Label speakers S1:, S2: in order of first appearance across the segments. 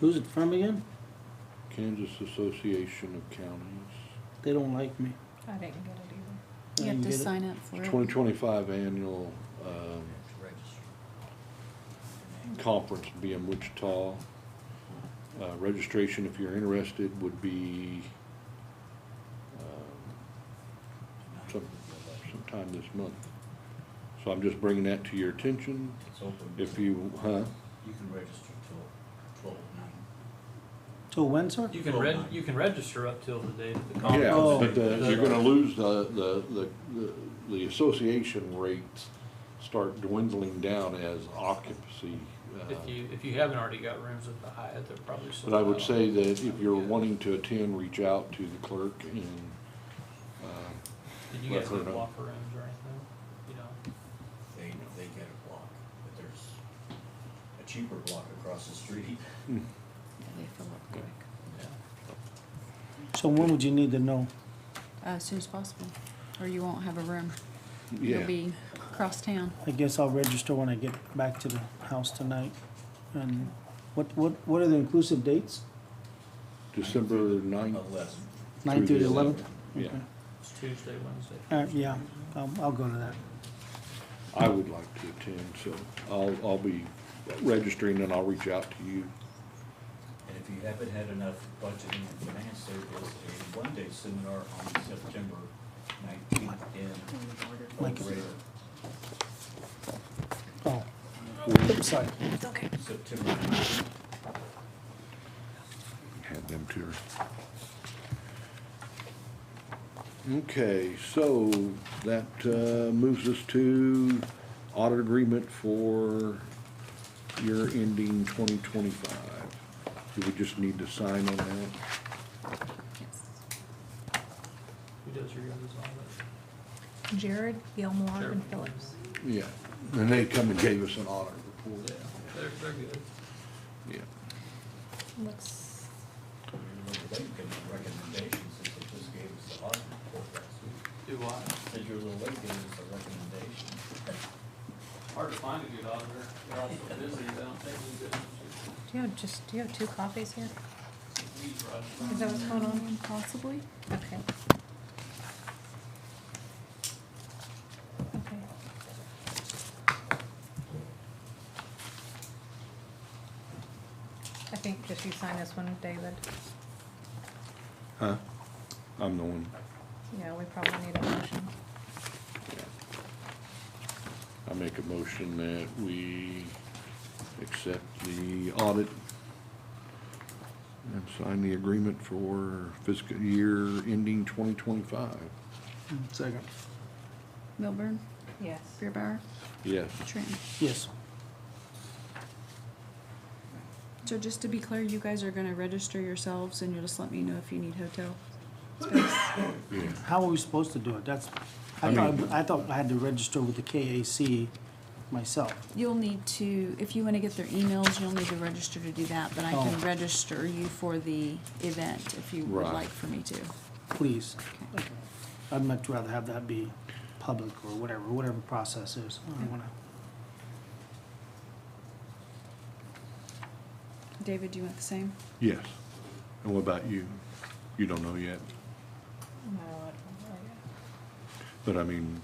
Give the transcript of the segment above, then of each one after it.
S1: Who's it from again?
S2: Kansas Association of Counties,
S1: They don't like me.
S3: I didn't get it either.
S1: I
S4: You
S1: didn't
S4: have to
S1: get it.
S4: sign up for it.
S2: twenty twenty-five annual, um, conference will be in Wichita. Uh, registration, if you're interested, would be, um, some, sometime this month. So I'm just bringing that to your attention,
S5: It's open.
S2: if you, huh?
S5: You can register till twelve nine.
S1: So when, sir?
S6: You can
S5: Oh,
S6: reg,
S5: my.
S6: you can register up till the day of the conference.
S2: Yeah,
S1: Oh.
S2: but the, you're gonna lose the, the, the, the- the association rates start dwindling down as occupancy. uh,
S6: If you, if you haven't already got rooms at the Hyatt, they're probably sold
S2: But I would
S6: out.
S2: say that if you're wanting to attend, reach out to the clerk and, uh,
S6: Did you guys
S2: Well,
S6: have
S2: I don't know.
S6: locker rooms or anything? You know,
S5: They, they get a block, but there's a cheaper block across the street.
S4: They fill up quick,
S6: yeah.
S1: So when would you need to know?
S4: Uh, as soon as possible, or you won't have a room. You'll
S2: yeah.
S4: be across town.
S1: I guess I'll register when I get back to the house tonight. And what, what, what are the inclusive dates?
S2: December ninth,
S5: Unless,
S1: Nine
S2: Through
S1: through
S2: the
S1: the eleventh?
S2: yeah.
S6: It's Tuesday, Wednesday.
S1: Uh, yeah, I'll, I'll go to that.
S2: I would like to attend, so I'll, I'll be registering and I'll reach out to you.
S5: and if you haven't had enough budgeting and finance, there is a one-day seminar on September nineteenth in El
S1: Like-
S5: Dorado.
S1: Oh, sorry.
S4: It's okay.
S5: September nineteenth,
S2: Had them to her. Okay, so that uh, moves us to audit agreement for year ending twenty twenty-five. Do we just need to sign on that?
S4: Yes.
S6: Who does your guys' audit?
S3: Jared, Gilmore, and
S6: Jared.
S3: Phillips.
S2: Yeah, and they come and gave us an audit
S6: Yeah,
S2: report.
S6: they're, they're good.
S2: Yeah.
S3: Looks,
S5: they recommendations since they just gave us the audit report last week.
S6: Do what?
S5: Said your little lady gave us a recommendation.
S6: Hard to find a good auditor. They're all so busy, they don't take any good.
S3: do you have just, do you have two copies here?
S6: We run
S3: Is that what's going on?
S4: Possibly.
S3: Okay. Okay. I think just you sign this one, David.
S2: Huh? I'm the one.
S3: Yeah, we probably need a motion.
S2: I make a motion that we accept the audit and sign the agreement for fiscal year ending twenty twenty-five.
S1: Second.
S4: Milburn,
S3: Yes.
S4: Beerbauer,
S2: Yes.
S4: Trenton.
S1: Yes,
S4: So just to be clear, you guys are gonna register yourselves and you'll just let me know if you need hotel.
S2: Yeah.
S1: how are we supposed to do it? That's,
S2: I
S1: I
S2: mean-
S1: thought, I thought I had to register with the KAC myself.
S4: You'll need to, if you wanna get their emails, you'll need to register to do that, but I can
S1: Oh.
S4: register you for the event if you would
S2: Right.
S4: like for me to.
S1: Please. I'd much rather have that be public or whatever, whatever process is. I don't wanna.
S4: David, do you want the same?
S2: Yes. And what about you? You don't know yet,
S3: No, I don't know yet.
S2: but I mean,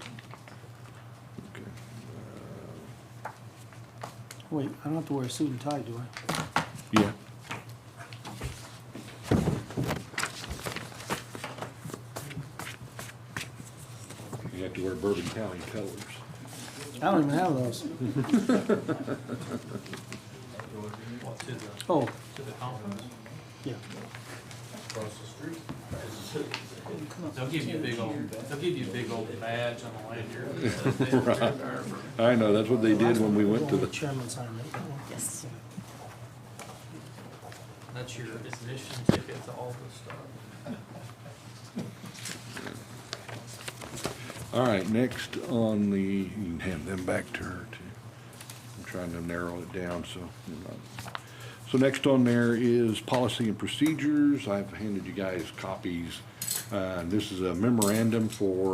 S2: okay.
S1: Wait, I don't have to wear a suit and tie, do I?
S2: Yeah. You have to wear Bourbon County colors.
S1: I don't even have those.
S6: What, to the,
S1: Oh,
S6: to the conference?
S1: yeah.
S5: Across the street.
S6: They'll give you a big old, they'll give you a big old badge on the lanyard. that says they were there for-
S2: I know, that's what they did when we went to
S1: Only
S2: the,
S1: Chairman signed it.
S4: Yes.
S6: That's your admission ticket to all this stuff.
S2: all right, next on the, you can hand them back to her too. I'm trying to narrow it down, so. we're not- So next on there is policy and procedures. I've handed you guys copies. Uh, this is a memorandum for